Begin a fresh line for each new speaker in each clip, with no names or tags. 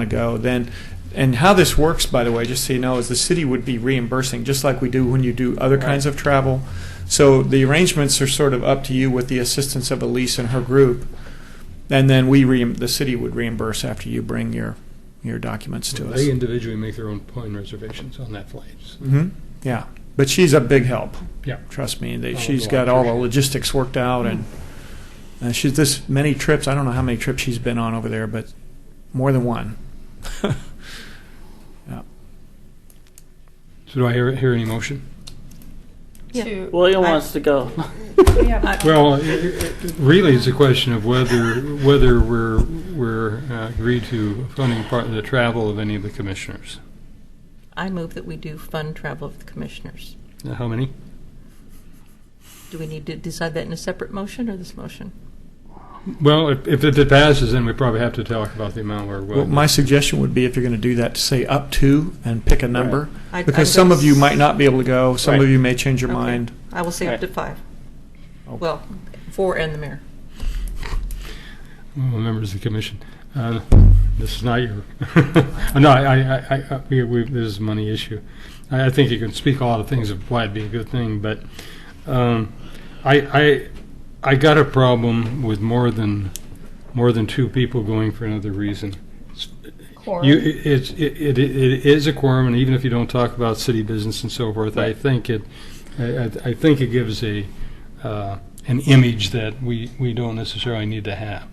ago, then, and how this works, by the way, just so you know, is the city would be reimbursing, just like we do when you do other kinds of travel. So the arrangements are sort of up to you with the assistance of Elise and her group. And then we, reim- the city would reimburse after you bring your, your documents to us.
They individually make their own plane reservations on that flight.
hmm yeah. But she's a big help.
Yeah.
Trust me, they,
Oh,
she's
well,
got all the
sure. Hmm.
logistics worked out and, and she's this many trips. I don't know how many trips she's been on over there, but more than one.
So do I hear, hear any motion?
Yeah.
to-
William
I-
wants to go.
we have-
Well, it- it- really, it's a question of whether, whether we're, we're uh, agreed to funding part of the travel of any of the commissioners.
I move that we do fund travel of the commissioners.
Now, How many?
Do we need to decide that in a separate motion or this motion?
Well, if, if it passes, then we probably have to talk about the amount we're
Well,
willing.
my suggestion would be if you're going to do that, to say up to and pick a number.
I'd-
Because
I'd
some
go
of you
s-
might not be able to go, some of
Right.
you may change your
Okay.
mind. Oh.
I will say up to five. Well, four and the mayor.
Well, members of the commission. Uh, This is not your, no, I, I- I, I, we, we, this is a money issue. I, I think you can speak a lot of things of why it'd be a good thing, but, um, I, I, I got a problem with more than, more than two people going for another reason. It's- You, it- it's, it, it, it is a quorum, and even if you don't talk about city business and so forth, I think it, I, I- I think it gives a, uh, an image that we, we don't necessarily need to have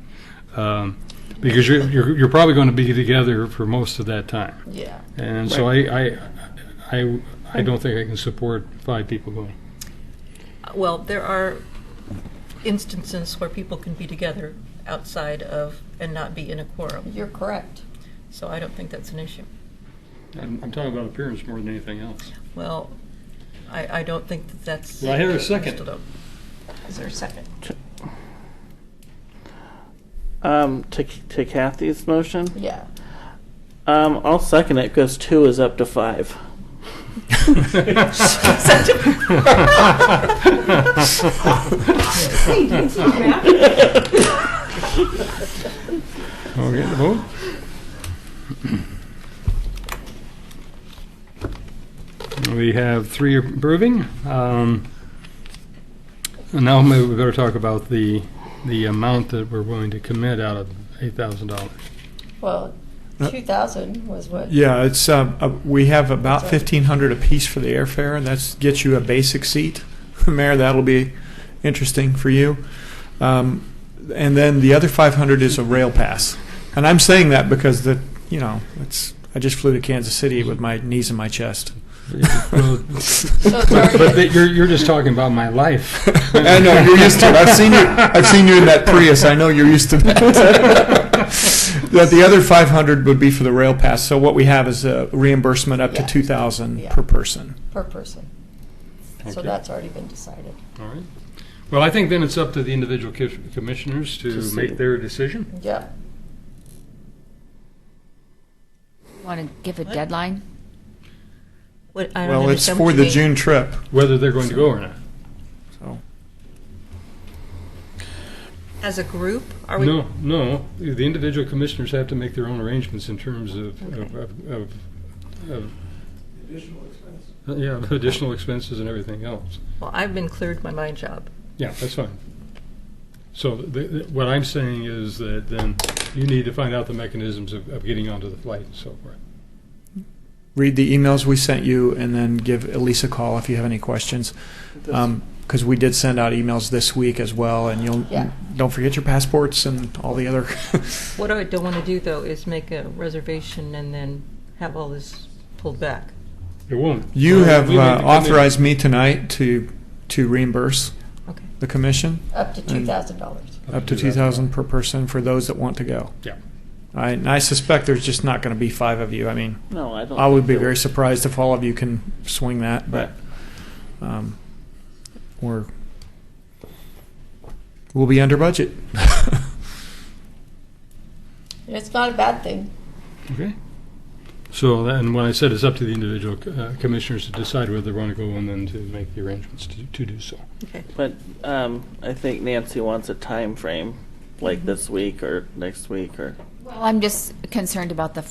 um, because you're, you're you're probably going to be together for most of that time,
Yeah.
and so I, I I I don't think I can support five people going.
Well, there are instances where people can be together outside of and not be in a quorum.
You're correct.
So I don't think that's an issue.
I'm, I'm talking about appearance more than anything else.
Well, I, I don't think that that's.
Do I hear a second?
Still don't.
Is there a second?
Um, to, to Kathy's motion.
Yeah.
Um, I'll second it because two is up to five.
Okay, the vote. We have three approving. Um, and now maybe we better talk about the the amount that we're willing to commit out of eight thousand dollars.
Well,
Uh,
2000 was what?
Yeah, it's, uh, uh, we have about
Sorry.
fifteen hundred apiece for the airfare, and that's gets you a basic seat. Mayor, that'll be interesting for you. Um, and then the other five hundred is a rail pass. And I'm saying that because the, you know, it's, I just flew to Kansas City with my knees in my chest.
So it's
But, but
already-
that- you're, you're just talking about my life.
I know you're used to it. I've seen you. I've seen you in that Prius. I know you're used to that. But the other 500 would be for the rail pass. So what we have is a reimbursement up
Yeah.
to 2,000
Yeah.
per person.
per person. So
Okay.
that's already been decided.
All right. Well, I think then it's up to the individual co- commissioners to
To see.
make their decision.
Yeah.
Want to give a deadline?
What, I don't
Well, it's
understand what
for
you
the
mean.
June trip.
Whether they're going to go or not.
So
As a group, are we?
No, no, the individual commissioners have to make their own arrangements in terms of, of, of- of, of. Additional expenses. Yeah, additional expenses and everything else.
Well, I've been cleared by my job.
Yeah, that's fine. So the- the- what I'm saying is that then you need to find out the mechanisms of, of getting onto the flight and so forth.
read the emails we sent you, and then give Elise a call if you have any questions. Because we did send out emails this week as well, and you'll
Yeah.
don't forget your passports and all the other.
What I don't want to do, though, is make a reservation and then have all this pulled back.
It won't.
you
Well,
have
we need
uh,
to commit-
authorized me tonight to to reimburse
Okay.
the commission.
Up to $2,000.
up to two thousand per person for those that want to go.
Yeah.
I, and I suspect there's just not going to be five of you. I mean,
No, I don't.
I would be
think
very
so.
surprised if all of you can swing that, but um, we're we'll be under budget.
And it's not a bad thing.
Okay. So then, when I said it's up to the individual uh, commissioners to decide whether they want to go and then to make the arrangements to, to do so.
Okay.
But um, I think Nancy wants a time frame, like this week or next week or.
Well, I'm just concerned about the